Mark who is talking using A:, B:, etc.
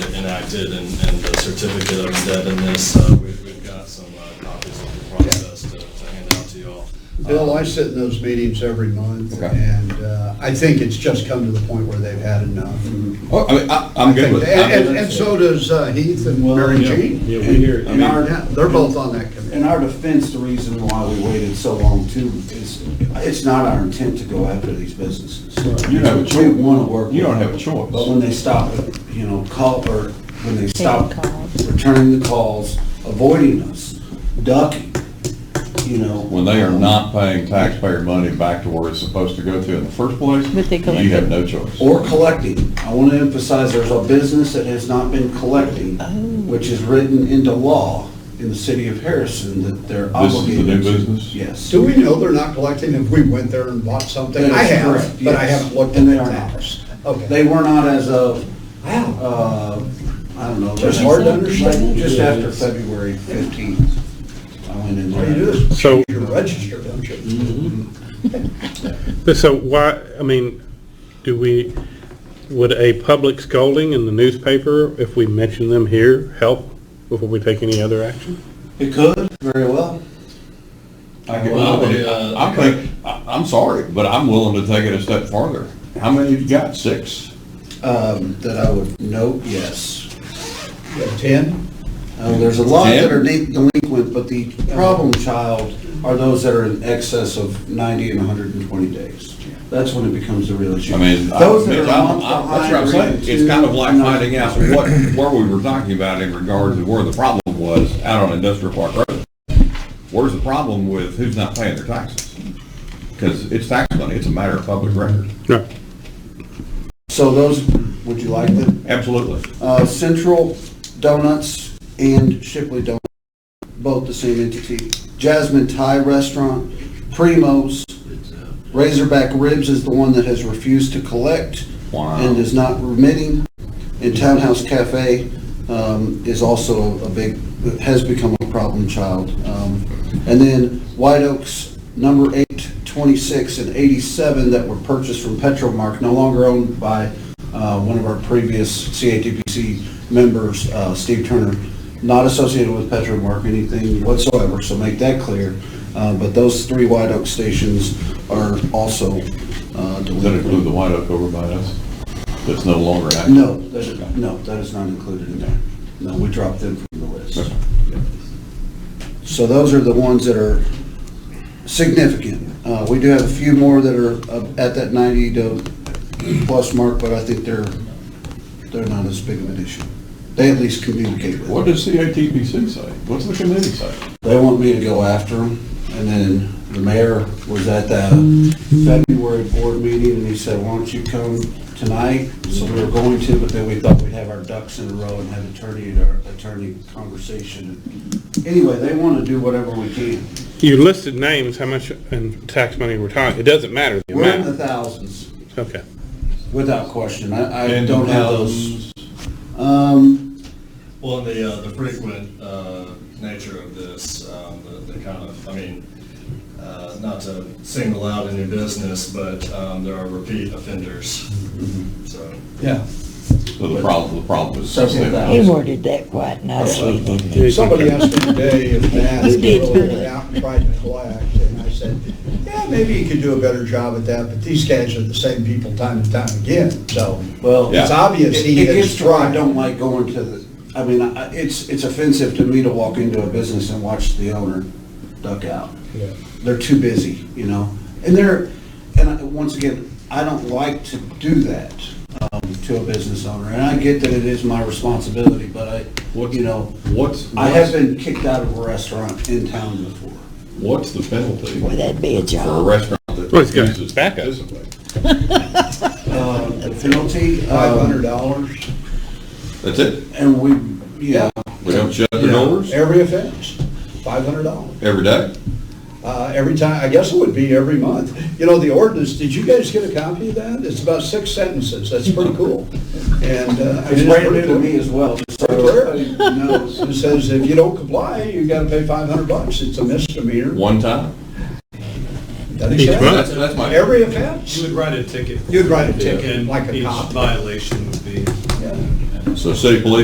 A: enacted and, and the certificate of indebtedness. Uh, we- We've got some uh, copies of the process to to hand out to y'all. Uh,
B: Bill, I sit in those meetings every month,
C: Okay.
B: and uh, I think it's just come to the point where they've had enough.
D: Mm-hmm.
C: Oh, I mean, I, I'm good with
B: And, and-
C: it.
B: and so does uh, Heath and
D: Well,
B: Mary
D: yeah,
B: Jean.
D: Yeah, we hear it.
B: And our- yeah, They're both on that
D: In
B: committee.
D: our defense, the reason why we waited so long too is, it's not our intent to go after these businesses.
C: You don't have a choice.
D: We want to work.
C: You
D: with
C: don't have a
D: them.
C: choice.
D: But when they stop, you know, call, or when they stop
E: calls.
D: returning the calls, avoiding us, ducking, you know.
C: When they are not paying taxpayer money back to where it's supposed to go to in the first place,
E: But they collect
C: you have
E: it.
C: no choice.
D: Or collecting. I want to emphasize, there's a business that has not been collecting, which is written into law in the city of Harrison that they're
C: This is the
D: obligated.
C: new
D: to-
C: business?
D: Yes.
B: Do we know they're not collecting if we went there and bought something?
D: That
B: I
D: is
B: have,
D: correct,
B: but I
D: yes.
B: haven't looked in
D: And they
B: the
D: are not.
B: hours. Okay.
D: They were not as of, uh, I don't know.
B: Just
D: like-
B: hard to understand.
D: like Just after February fifteenth. I went in
B: All you do
D: there.
B: is
F: So-
B: change your register, don't you?
F: But so why, I mean, do we, would a public scolding in the newspaper, if we mention them here, help before we take any other action?
D: It could, very well.
C: I can-
A: Well,
C: I
A: they, uh,
C: think- I think, I- I'm sorry, but I'm willing to take it a step farther. How many you got? Six?
D: Um, that I would note, yes.
B: You have Ten?
D: Uh, there's a lot that
C: Yeah.
D: are de- delinquent, but the problem child are those that are in excess of ninety and hundred and twenty days. That's when it becomes a real issue.
C: I mean, I-
D: Those that are
C: I'm-
D: a month
C: I'm- that's what I'm
D: behind or
C: saying.
D: even two,
C: It's kind of like
D: not-
C: finding out what, where we were talking about in regards to where the problem was out on Industrial Park Road. Where's the problem with who's not paying their taxes? Because it's tax money, it's a matter of public record.
F: No.
D: So those, would you like them?
C: Absolutely.
D: Uh, Central Donuts and Shipley Donuts, both the same entity. Jasmine Thai Restaurant, Primo's, Razorback Ribs is the one that has refused to collect
C: Wow.
D: and is not remitting. And Townhouse Cafe um, is also a big, has become a problem child. Um, And then White Oaks, number eight, 26, and 87 that were purchased from Petromark, no longer owned by uh, one of our previous CATPC members, uh, Steve Turner, not associated with Petromark, anything whatsoever, so make that clear. Uh, But those three White Oak stations are also uh,
C: Does that include
D: delinquent.
C: the white oak over by us? That's no longer active?
D: No, that is, no, that is not included in there. No, we dropped them from the list.
C: Okay.
D: So those are the ones that are significant. Uh, we do have a few more that are uh, at that ninety to plus mark, but I think they're, they're not as big of an issue. They at least communicate with
C: What
D: it.
C: does CATPC say? What's the committee say?
D: They want me to go after them, and then the mayor was at that February board meeting, and he said, why don't you come tonight? So we were going to, but then we thought we'd have our ducks in a row and have attorney, our attorney conversation. Anyway, they want to do whatever we can.
F: You listed names, how much in tax money we're talking, it doesn't matter the
D: We're in the
F: amount.
D: thousands,
B: uh,
F: Okay.
D: without question. I, I
C: And
D: don't have
C: how-
D: those. Um,
A: Well, and the, uh, the frequent, uh, nature of this, um, the, the kind of, I mean, uh, not to single out any business, but, um, there are repeat offenders, so.
B: Yeah.
C: So the problem, the problem is.
D: Several
E: He
D: thousand.
E: worded that quite nicely. didn't he?
B: Somebody asked me today if Matt
E: You did.
B: really went out and tried to collect, and I said, yeah, maybe you could do a better job at that, but these guys are the same people time and time again, so.
D: Well,
B: It's obvious
D: It
B: he
D: it gets
B: has
D: to where I
B: tried.
D: don't like going to the, I mean, I- it's, it's offensive to me to walk into a business and watch the owner duck out.
B: Yeah.
D: They're too busy, you know? And they're, and I- once again, I don't like to do that um, to a business owner. And I get that it is my responsibility, but I,
C: What-
D: you know,
C: What's,
D: I have been kicked out of a restaurant in town before.
C: what's the penalty
E: Boy,
C: for
E: that'd be a
C: a
E: job.
C: restaurant that
F: Well, it's got
C: refuses to
F: backup.
C: participate?
D: Uh, The penalty,
B: Five hundred
D: um,
B: dollars?
C: That's it?
D: and we, yeah,
C: We don't shut their doors
B: Every offense, five hundred dollars.
C: every day?
B: Uh, every time, I guess it would be every month. You know, the ordinance, did you guys get a copy of that? It's about six sentences, that's pretty cool. And, uh. I mean,
D: it's brand new
B: pretty
D: to
B: cool.
D: me as well. so
B: Pretty
D: everybody
B: clear.
D: knows.
B: It says if you don't comply, you gotta pay five hundred bucks, it's a misdemeanor.
C: One time?
B: Doesn't
F: Each
B: say
F: month.
C: That's, that's my.
B: Every offense.
G: You would write a ticket.
B: You'd write a
G: Yeah.
B: ticket, like a
G: And each
B: cop.
G: violation would be
B: Yeah.
C: So city police